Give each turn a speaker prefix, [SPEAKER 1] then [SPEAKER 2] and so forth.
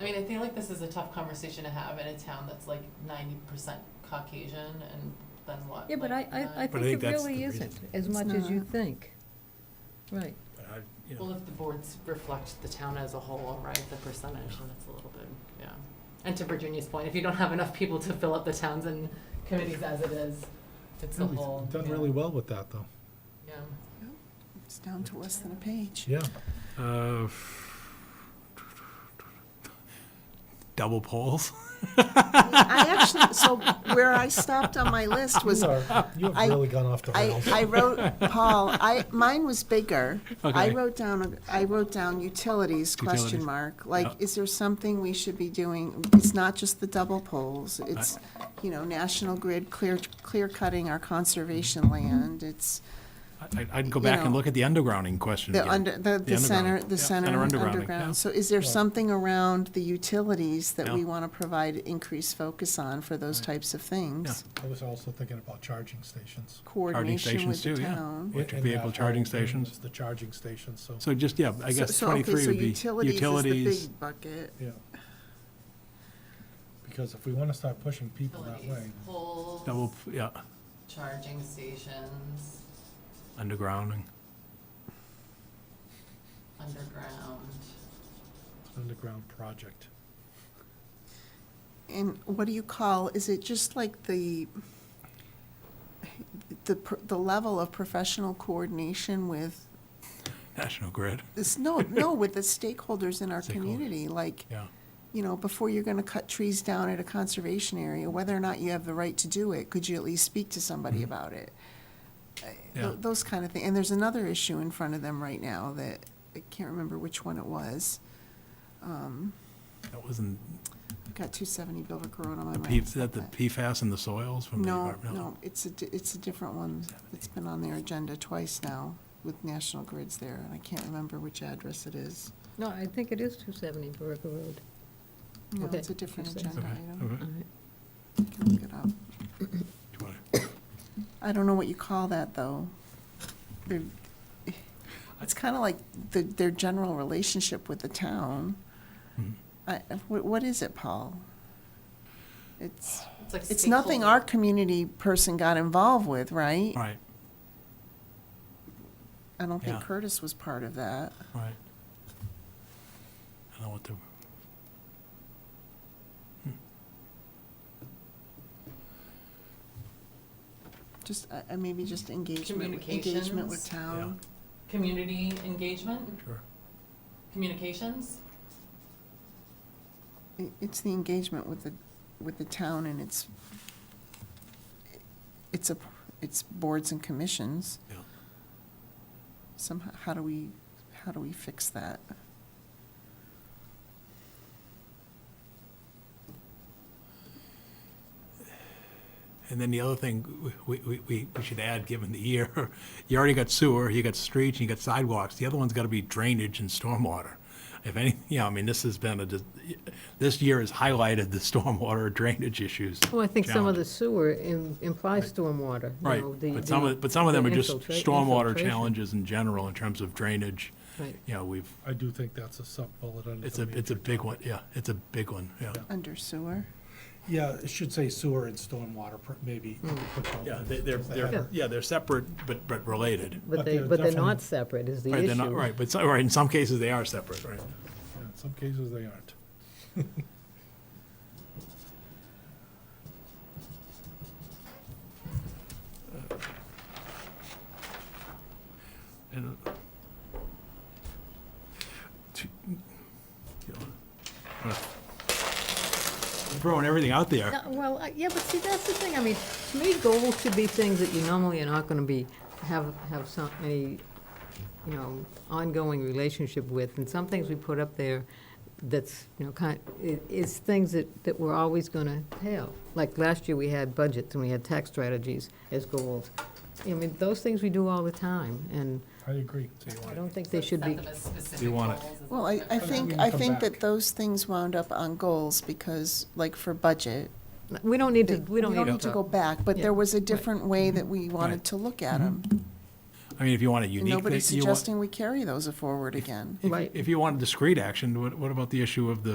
[SPEAKER 1] I mean, I feel like this is a tough conversation to have in a town that's like ninety percent Caucasian and then what?
[SPEAKER 2] Yeah, but I,
[SPEAKER 1] like,
[SPEAKER 2] I, I
[SPEAKER 1] nine-
[SPEAKER 3] But
[SPEAKER 2] think
[SPEAKER 3] I think
[SPEAKER 2] it
[SPEAKER 3] that's
[SPEAKER 2] really
[SPEAKER 3] the
[SPEAKER 2] isn't,
[SPEAKER 3] reason.
[SPEAKER 2] as
[SPEAKER 4] It's
[SPEAKER 2] much as you
[SPEAKER 4] not.
[SPEAKER 2] think. Right.
[SPEAKER 3] But I, you
[SPEAKER 1] Well,
[SPEAKER 3] know,
[SPEAKER 1] if the boards reflect the town as a whole, right, the percentage, and it's a little bit, yeah. And to Virginia's point, if you don't have enough people to fill up the towns and committees as it is, it's the
[SPEAKER 5] Yeah, we've
[SPEAKER 1] whole.
[SPEAKER 5] Done
[SPEAKER 1] yeah,
[SPEAKER 5] really well with that, though.
[SPEAKER 1] Yeah,
[SPEAKER 4] It's down to less than a page.
[SPEAKER 5] Yeah.
[SPEAKER 3] uh, double polls.
[SPEAKER 4] I actually, so where I stopped on my list was,
[SPEAKER 5] You are- you
[SPEAKER 4] I-
[SPEAKER 5] have really gone off the
[SPEAKER 4] I,
[SPEAKER 5] rails.
[SPEAKER 4] I wrote, Paul, I, mine was bigger. I
[SPEAKER 3] Okay.
[SPEAKER 4] wrote down, a- I wrote down utilities, question
[SPEAKER 3] Utilities.
[SPEAKER 4] mark. Like,
[SPEAKER 3] Yeah.
[SPEAKER 4] is there something we should be doing? It's not just the double poles. It's, you know, National Grid clear, clear cutting our conservation land. It's
[SPEAKER 3] I, I can go
[SPEAKER 4] You
[SPEAKER 3] back and
[SPEAKER 4] know,
[SPEAKER 3] look at the undergrounding question
[SPEAKER 4] the
[SPEAKER 3] again.
[SPEAKER 4] under, the, the
[SPEAKER 3] underground.
[SPEAKER 4] center, the
[SPEAKER 3] Yeah.
[SPEAKER 4] center
[SPEAKER 3] Center undergrounding, yeah.
[SPEAKER 4] underground. So is there something around the utilities that we
[SPEAKER 3] Yeah.
[SPEAKER 4] want to provide increased focus on for those types of things?
[SPEAKER 5] I was also thinking about charging stations.
[SPEAKER 4] coordination with the
[SPEAKER 3] stations too, yeah.
[SPEAKER 4] town.
[SPEAKER 3] Electric
[SPEAKER 5] And that
[SPEAKER 3] vehicle
[SPEAKER 5] whole
[SPEAKER 3] charging
[SPEAKER 5] thing
[SPEAKER 3] stations.
[SPEAKER 5] is The charging stations, so,
[SPEAKER 3] So just, yeah, I guess
[SPEAKER 4] So- so, okay,
[SPEAKER 3] twenty-three
[SPEAKER 4] so
[SPEAKER 3] would
[SPEAKER 4] Utilities is
[SPEAKER 3] be utilities.
[SPEAKER 4] the big bucket.
[SPEAKER 5] yeah. Because if we want to start pushing people that way,
[SPEAKER 1] utilities, poles,
[SPEAKER 3] Double, yeah,
[SPEAKER 1] charging stations,
[SPEAKER 3] undergrounding.
[SPEAKER 1] underground.
[SPEAKER 5] underground project.
[SPEAKER 4] And what do you call, is it just like the, the, pr- the level of professional coordination with,
[SPEAKER 3] National Grid,
[SPEAKER 4] this, no, no, with the stakeholders in our
[SPEAKER 3] Stakeholders.
[SPEAKER 4] community? Like,
[SPEAKER 3] yeah.
[SPEAKER 4] you know, before you're gonna cut trees down at a conservation area, whether or not you have the right to do it, could you at least speak to somebody about it? Uh,
[SPEAKER 3] Mm-hmm. Yeah.
[SPEAKER 4] tho- Those kind of things. And there's another issue in front of them right now that, I can't remember which one it was.
[SPEAKER 3] That wasn't,
[SPEAKER 4] I've got two seventy Bilbrook Road on my
[SPEAKER 3] P-
[SPEAKER 4] mind.
[SPEAKER 3] is that the PFAS in the soils from the
[SPEAKER 4] No,
[SPEAKER 3] environmental?
[SPEAKER 4] no, it's a, di- it's a different one. It's been on their agenda twice now with National Grids there, and I can't remember which address it is.
[SPEAKER 2] No, I think it is 270 Borrego Road.
[SPEAKER 4] No,
[SPEAKER 2] Okay.
[SPEAKER 4] it's a different
[SPEAKER 2] Okay.
[SPEAKER 4] agenda item.
[SPEAKER 3] Okay, okay.
[SPEAKER 4] I can look it up.
[SPEAKER 3] Do you wanna-
[SPEAKER 4] I don't know what you call that, though. They're- It's kind of like the, their general relationship with the town.
[SPEAKER 3] Mhm.
[SPEAKER 4] I, what, what is it, Paul? It's,
[SPEAKER 1] It's like
[SPEAKER 4] it's nothing
[SPEAKER 1] stakeholder-
[SPEAKER 4] our community person got involved with, right?
[SPEAKER 3] Right,
[SPEAKER 4] I don't think
[SPEAKER 3] Yeah.
[SPEAKER 4] Curtis was part of that.
[SPEAKER 3] right. I don't know what to.
[SPEAKER 4] Just, uh, uh, maybe just engagement, with- engagement
[SPEAKER 1] Communications.
[SPEAKER 4] with town.
[SPEAKER 1] Community engagement,
[SPEAKER 3] Sure.
[SPEAKER 1] communications,
[SPEAKER 4] I- It's the engagement with the, with the town and its, it's a, it's boards and commissions.
[SPEAKER 3] Yeah.
[SPEAKER 4] Somehow, how do we, how do we fix that?
[SPEAKER 3] And then the other thing we, we, we, we should add, given the year, you already got sewer, you got streets, you got sidewalks. The other one's gotta be drainage and stormwater. If any, you know, I mean, this has been a, dis- this year has highlighted the stormwater drainage issues.
[SPEAKER 2] Well, I think some of the
[SPEAKER 3] Challenges.
[SPEAKER 2] sewer im- implies stormwater, you
[SPEAKER 3] Right,
[SPEAKER 2] know, the-
[SPEAKER 3] but some of,
[SPEAKER 2] the-
[SPEAKER 3] but some of them
[SPEAKER 2] the
[SPEAKER 3] are just
[SPEAKER 2] infiltra-
[SPEAKER 3] stormwater
[SPEAKER 2] infiltration.
[SPEAKER 3] challenges in general in terms of drainage.
[SPEAKER 2] Right.
[SPEAKER 3] You know, we've,
[SPEAKER 5] I do think that's a sub-bullet under
[SPEAKER 3] it's
[SPEAKER 5] the
[SPEAKER 3] a,
[SPEAKER 5] major.
[SPEAKER 3] it's a big one, yeah, it's a big one, yeah.
[SPEAKER 4] Under sewer?
[SPEAKER 5] Yeah, it should say sewer and stormwater, pr- maybe.
[SPEAKER 1] Hmm.
[SPEAKER 5] put both
[SPEAKER 3] Yeah,
[SPEAKER 5] in,
[SPEAKER 3] they- they're,
[SPEAKER 5] because they
[SPEAKER 3] they're,
[SPEAKER 5] have-
[SPEAKER 3] yeah, they're separate, but, but related.
[SPEAKER 2] But
[SPEAKER 5] But
[SPEAKER 2] they,
[SPEAKER 5] they're
[SPEAKER 2] but they're not
[SPEAKER 5] definitely-
[SPEAKER 2] separate is the
[SPEAKER 3] Right, they're
[SPEAKER 2] issue.
[SPEAKER 3] not, right, but, so- right, in some cases, they are separate, right?
[SPEAKER 5] yeah, In some cases, they aren't.
[SPEAKER 3] And, uh, t- you know, uh, Throwing everything out there.
[SPEAKER 2] No, Well, I- yeah, but see, that's the thing, I mean, to me, goals should be things that you normally are not gonna be, have, have some, any, you know, ongoing relationship with, and some things we put up there that's, you know, kind, i- is things that, that we're always gonna have. Like last year, we had budgets and we had tax strategies as goals. I mean, those things we do all the time, and
[SPEAKER 5] I agree.
[SPEAKER 2] I don't think they should
[SPEAKER 1] set
[SPEAKER 2] be,
[SPEAKER 1] them as
[SPEAKER 3] You
[SPEAKER 1] specific
[SPEAKER 3] want it.
[SPEAKER 1] goals. as
[SPEAKER 4] Well, I, I
[SPEAKER 1] separate-
[SPEAKER 4] think,
[SPEAKER 5] can
[SPEAKER 4] I
[SPEAKER 5] come
[SPEAKER 4] think that
[SPEAKER 5] back.
[SPEAKER 4] those things wound up on goals because, like for budget,
[SPEAKER 2] we don't need
[SPEAKER 4] they-
[SPEAKER 2] to, we don't need to.
[SPEAKER 4] go back, but
[SPEAKER 2] Yeah.
[SPEAKER 4] there was a different way that we wanted
[SPEAKER 3] Right.
[SPEAKER 4] to look at them.
[SPEAKER 3] I mean, if you want a unique,
[SPEAKER 4] Nobody's
[SPEAKER 3] thing- you want,
[SPEAKER 4] suggesting we carry those forward again.
[SPEAKER 2] Right.
[SPEAKER 3] if you want discrete action, what, what about the issue of the